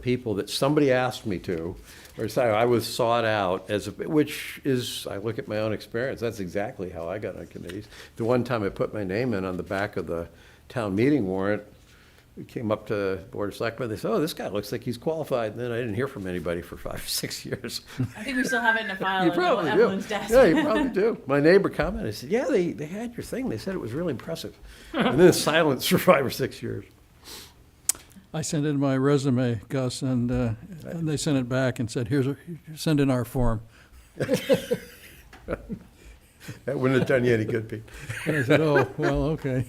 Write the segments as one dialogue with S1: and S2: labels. S1: people that somebody asked me to, or sorry, I was sought out as, a which is, I look at my own experience, that's exactly how I got on committees. The one time I put my name in on the back of the town meeting warrant, it came up to the Board of Selectmen, they said, oh, this guy looks like he's qualified, and then I didn't hear from anybody for five or six years.
S2: I think we still have it in a file
S1: You
S2: on
S1: probably do.
S2: Evelyn's Oh, desk.
S1: Yeah, you probably do. My neighbor commented, I said, yeah, they, they had your thing. They said it was really impressive. And then silence for five or six years.
S3: I sent in my resume, Gus, and, uh, and they sent it back and said, here's, a- send in our form.
S1: That wouldn't have done you any good, Pete.
S3: And I said, oh, well, okay.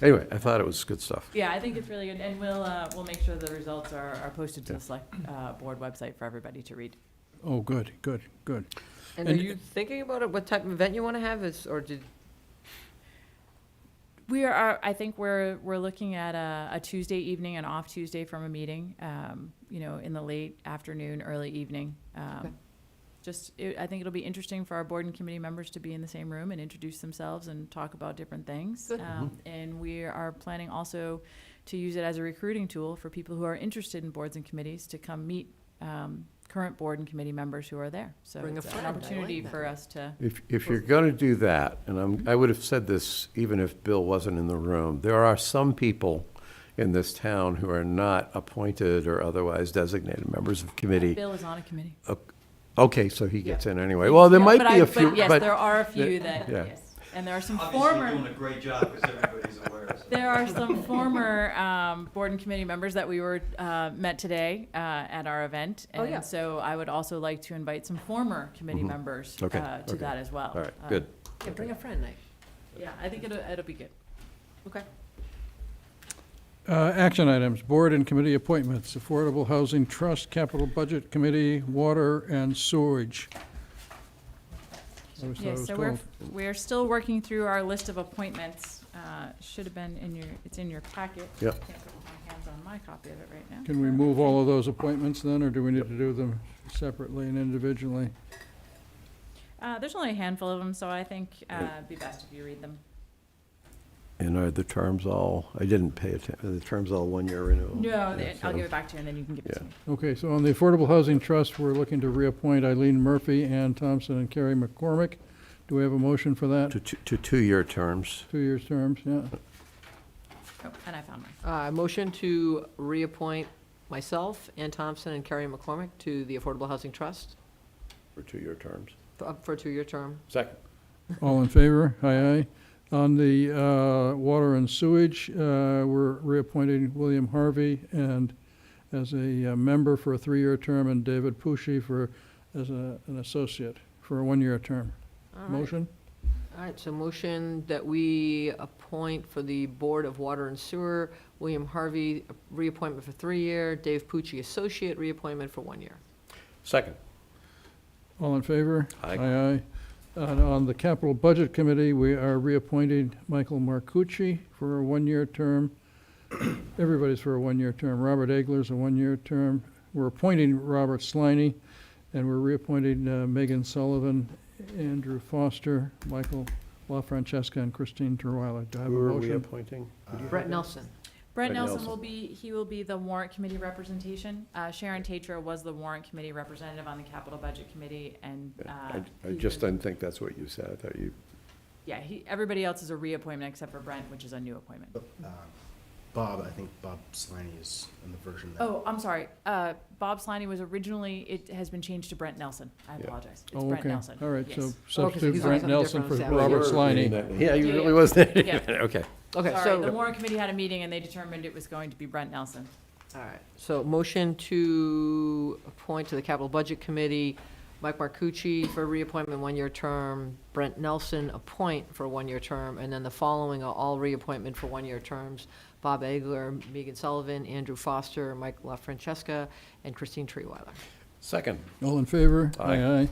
S1: Anyway, I thought it was good stuff.
S2: Yeah, I think it's really good, and we'll, uh, we'll make sure the results are, are posted to the select, uh, board website for everybody to read.
S3: Oh, good, good, good.
S4: And are
S3: And-
S4: you thinking about it, what type of event you want to have, is, or did,
S2: We are, uh, I think we're, we're looking at a, a Tuesday evening, an off Tuesday from a meeting, um, you know, in the late afternoon, early evening. Um,
S4: Okay.
S2: Just, it, I think it'll be interesting for our board and committee members to be in the same room and introduce themselves and talk about different things.
S4: Good.
S2: Um, And we are planning also to use it as a recruiting tool for people who are interested in boards and committees to come meet, um, current board and committee members who are there. So
S4: Bring a
S2: it's an
S4: friend. I like
S2: opportunity
S4: that.
S2: for us to,
S1: If, if you're going to do that, and I'm, I would have said this even if Bill wasn't in the room, there are some people in this town who are not appointed or otherwise designated members of committee.
S2: Bill is on a committee.
S1: O- Okay, so he gets in anyway. Well, there might
S2: But
S1: be
S2: I-
S1: a few,
S2: But yes, there
S1: but
S2: are a few that,
S1: yeah.
S2: yes. And there are some
S5: Obviously, you're
S2: former,
S5: doing a great job because everybody's aware. so.
S2: there are some former um, board and committee members that we were, uh, met today uh, at our event.
S4: Oh, yeah.
S2: And so I would also like to invite some former committee members uh,
S1: Mm-hmm. Okay,
S2: to
S1: okay.
S2: that as well.
S1: all right,
S2: Uh,
S1: good.
S4: yeah, bring a friend night,
S2: Yeah, I think it'll, it'll be good.
S4: okay?
S3: Uh, action items, board and committee appointments, Affordable Housing Trust, Capital Budget Committee, Water and Sewerage. I always thought it
S2: Yeah,
S3: was
S2: so we're,
S3: 12.
S2: we're still working through our list of appointments. Uh, Should have been in your, it's in your packet.
S1: Yep.
S2: I Can't put my hands on my copy of it right now.
S3: Can we move all of those appointments then, or do we need to do them separately and individually?
S2: Uh, There's only a handful of them, so I think uh, it'd be best if you read them.
S1: And are the terms all, I didn't pay attention, are the terms all one-year renewal?
S2: No,
S1: Yeah,
S2: th- I'll
S1: so-
S2: give it back to you, and then you can give it to
S1: Yeah.
S2: me.
S3: Okay, so on the Affordable Housing Trust, we're looking to reappoint Eileen Murphy, Ann Thompson, and Carrie McCormick. Do we have a motion for that?
S1: To, two- to two-year terms.
S3: Two years terms, yeah.
S2: Oh, and I found mine.
S4: Uh, motion to reappoint myself, Ann Thompson, and Carrie McCormick to the Affordable Housing Trust
S1: For two-year terms.
S4: for- up for a two-year term.
S1: Second.
S3: All in favor? Aye, aye. On the uh, Water and Sewage, uh, we're reappointing William Harvey and as a uh, member for a three-year term, and David Pushy for, as a- an associate for a one-year term.
S4: All right.
S3: Motion?
S4: All right, so motion that we appoint for the Board of Water and Sewer, William Harvey, reappointment for three-year, Dave Pucci, associate, reappointment for one year.
S1: Second.
S3: All in favor?
S1: Aye.
S3: Aye, aye. And on the Capital Budget Committee, we are reappointing Michael Marcucci for a one-year term. Everybody's for a one-year term. Robert Egler's a one-year term. We're appointing Robert Sliney, and we're reappointing uh, Megan Sullivan, Andrew Foster, Michael LaFrancesca, and Christine Terweiler. Do I have a
S1: Who are we
S3: motion?
S1: appointing?
S4: Brett Nelson.
S2: Brett
S1: Brett
S2: Nelson will
S1: Nelson.
S2: be, he will be the warrant committee representation. Uh, Sharon Tatro was the warrant committee representative on the capital budget committee, and, uh.
S1: I I
S2: he
S1: just
S2: was-
S1: didn't think that's what you said. I thought you,
S2: Yeah, he, everybody else is a reappointment except for Brent, which is a new appointment.
S1: Oh,
S6: Bob, I think Bob Slaney is in the version that.
S2: Oh, I'm sorry, uh, Bob Slaney was originally, it has been changed to Brent Nelson, I
S1: Yeah.
S2: apologize. It's
S3: Oh,
S2: Brent
S3: okay.
S2: Nelson.
S3: All right, so
S2: Yes. Oh,
S3: substitute
S4: he's
S3: Brent
S4: on
S3: Nelson for
S4: something different.
S3: Robert
S4: Yeah.
S3: Sliney.
S1: Yeah, you
S2: Yeah,
S1: really
S2: yeah.
S1: wasn't.
S2: Yeah.
S1: Okay.
S4: Okay,
S2: Sorry,
S4: so.
S2: the warrant committee had a meeting and they determined it was going to be Brent Nelson.
S4: All right, so motion to appoint to the Capital Budget Committee, Mike Marcucci for reappointment, one-year term, Brent Nelson, appoint for a one-year term, and then the following are all reappointment for one-year terms, Bob Egler, Megan Sullivan, Andrew Foster, Mike LaFrancesca, and Christine Treeweiler.
S1: Second.
S3: All in favor?
S1: Aye.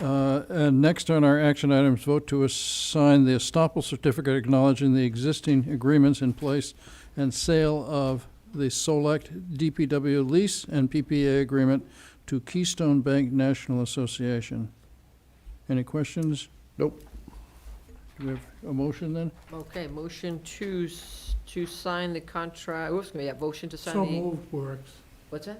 S3: aye. Uh, And next on our action items, vote to assign the estoppel certificate acknowledging the existing agreements in place and sale of the Select DPW lease and PPA agreement to Keystone Bank National Association. Any questions?
S1: Nope.
S3: Do we have a motion then?
S4: Okay, motion to, s- to sign the contract, oops, yeah, motion to sign the.
S7: So moved works.
S4: What's that?